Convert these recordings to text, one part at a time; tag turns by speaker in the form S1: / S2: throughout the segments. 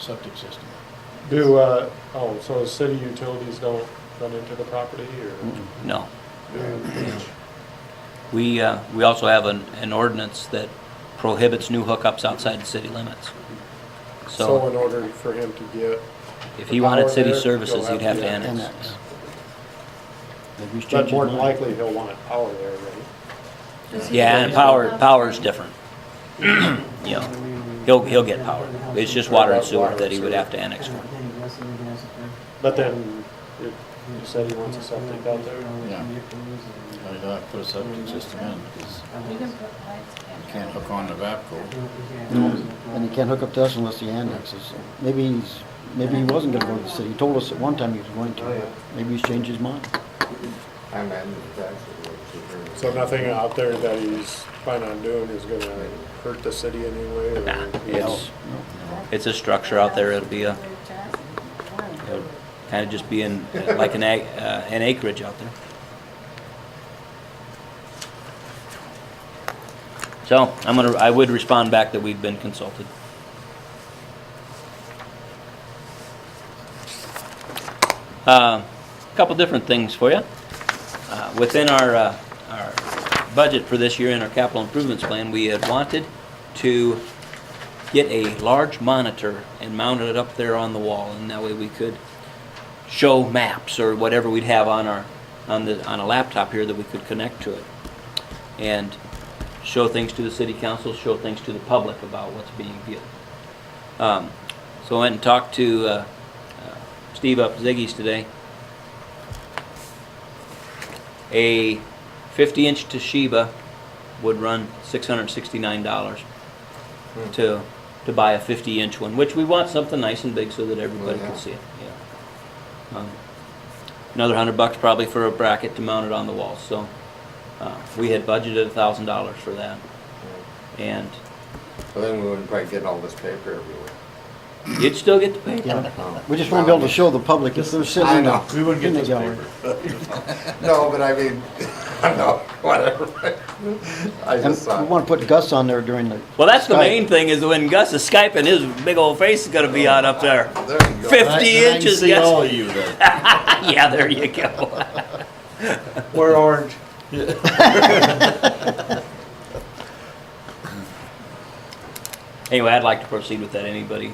S1: septic system.
S2: Do, uh, oh, so city utilities don't run into the property or?
S3: No. We, uh, we also have an, an ordinance that prohibits new hookups outside the city limits.
S2: So
S3: So
S2: in order for him to get,
S3: if he wanted
S2: power
S3: city
S2: there,
S3: services,
S2: you'll
S3: he'd have to
S2: have to
S3: annex.
S4: Annex. They
S2: but
S4: restricted
S2: more than
S4: mine.
S2: likely he'll want power there, right?
S3: Yeah, and power, power's different. You know, he'll, he'll get power. It's just water and sewer that he would have to annex for.
S2: But then you you said he wants a septic out there?
S1: Yeah. Why do I put a septic system in? Because
S5: You can put lights in.
S1: you can't hook on to VAPCO.
S4: And he can't hook up to us unless he annexes. Maybe he's, maybe he wasn't gonna go to the city. He told us at one time he was going
S1: Oh,
S4: to. Maybe he's changed his mind.
S6: I imagine that's what it's.
S2: So nothing out there that he's planning on doing is gonna hurt the city anyway or?
S3: Nah, it's, it's a structure out there. It'll be uh, a, it'll kind of just be in, like an ag, uh, an acreage out there. So I'm gonna, I would respond back that we've been consulted. Uh, Couple different things for you. Uh, Within our, uh, our budget for this year in our capital improvements plan, we had wanted to get a large monitor and mount it up there on the wall, and that way we could show maps or whatever we'd have on our, on the, on a laptop here that we could connect to it. And show things to the city council, show things to the public about what's being viewed. Um, So I went and talked to uh, uh, Steve up at Ziggy's today. A 50-inch Toshiba would run $669 to, to buy a 50-inch one, which we want something nice and big so that everybody
S6: Well,
S3: can
S6: yeah.
S3: see it, yeah. Um, Another hundred bucks probably for a bracket to mount it on the wall, so, uh, we had budgeted thousand dollars for that, and
S6: Well, then we wouldn't probably get all this paper everywhere. Um,
S3: you'd still get the paper.
S4: Yeah. We just wanna be able to show the public if they're sitting
S6: I
S4: in
S6: know.
S4: the,
S1: We wouldn't get
S4: in the
S1: this
S4: gallery.
S1: paper.
S6: No, but I mean, no, whatever. I
S4: And
S6: just
S1: uh,
S4: we
S6: thought,
S4: wanna put Gus on there during the.
S3: Well, that's the
S4: Skype.
S3: main thing, is when Gus is Skyping, his big old face is gonna be out up there.
S6: there you
S1: Then
S6: go.
S1: I-
S3: 50
S1: then I can
S3: inches,
S1: See
S3: yes.
S1: all of you then.
S3: Yeah, there you go.
S2: We're orange.
S3: Anyway, I'd like to proceed with that, anybody,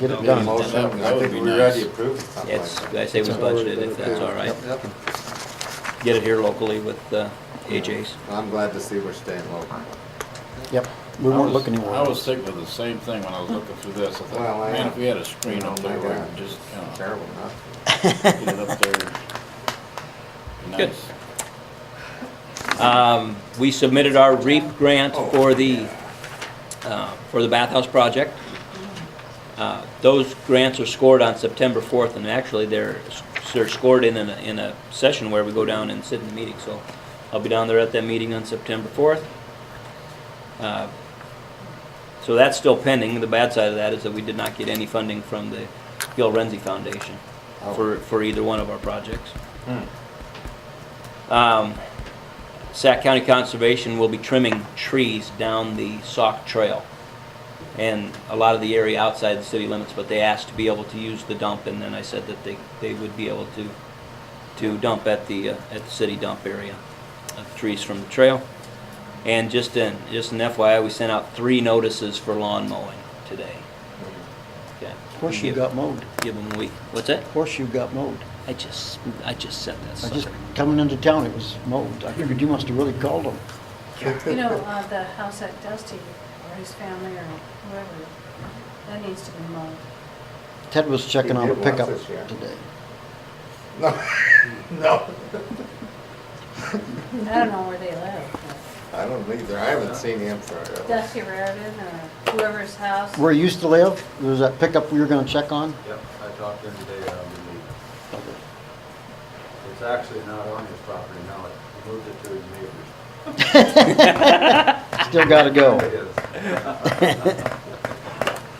S4: Get it
S6: Get a
S4: done.
S6: motion,
S1: That
S6: I
S1: would
S6: think
S1: be
S6: we're ready
S1: nice.
S6: to approve something
S3: it's,
S6: like that.
S3: I say we budgeted, if that's all right.
S6: Yep, yep.
S3: Get it here locally with, uh, AJ's.
S6: I'm glad to see we're staying local.
S4: Yep, we
S1: I
S4: weren't
S1: was-
S4: looking
S1: I
S4: anywhere.
S1: was thinking of the same thing when I was looking through this. I
S6: Well,
S1: thought,
S6: I-
S1: man, if we had a screen out there, we could just, you know,
S6: Terrible, huh?
S1: get it up there.
S3: Good.
S1: Nice.
S3: Um, we submitted our REAP grant
S6: Oh.
S3: for the, uh, for the bathhouse project. Uh, Those grants are scored on September 4th, and actually, they're, they're scored in, a- in a session where we go down and sit in the meeting, so I'll be down there at that meeting on September 4th. Uh, So that's still pending. The bad side of that is that we did not get any funding from the Gil Renzi Foundation for, for either one of our projects. Um, Sac County Conservation will be trimming trees down the Sauk Trail and a lot of the area outside the city limits, but they asked to be able to use the dump, and then I said that they, they would be able to, to dump at the, uh, at the city dump area of trees from the trail. And just in, just an FYI, we sent out three notices for lawn mowing today. Okay.
S4: Horseshoe
S3: Give-
S4: got mowed.
S3: Give them a week. What's that?
S4: Horseshoe got mowed.
S3: I just, I just said that
S4: I just,
S3: sucker.
S4: coming into town, it was mowed. I figured you must have really called him.
S5: You know, uh, the house at Dusty, or his family, or whoever, that needs to be mowed.
S4: Ted was checking
S6: He
S4: out a
S6: did once
S4: pickup
S6: this year.
S4: today.
S6: No, no,
S5: I don't know where they live.
S6: I don't either, I haven't seen him for,
S5: but
S6: a-
S5: Dusty Raritan, or whoever's house.
S4: Where he used to live, there was that pickup we were gonna check on.
S7: Yep, I talked to him today, I'm gonna leave. um, It's actually not on his property now, he moved it to his neighbor's.
S4: Still gotta go.
S7: It is.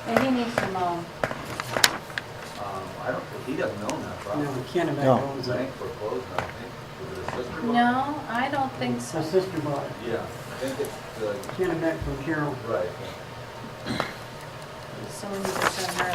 S5: And he needs to mow.
S7: Um, I don't, think- he doesn't own that
S8: No,
S7: property.
S8: we can't have
S4: No.
S8: that.
S7: The bank foreclosed, on it, I think, was it his sister bought it?
S5: No, I don't think so.
S8: My sister bought it.
S7: Yeah, I think it's, the
S8: Can't have that from Carol.
S7: right.
S5: So so we need to send her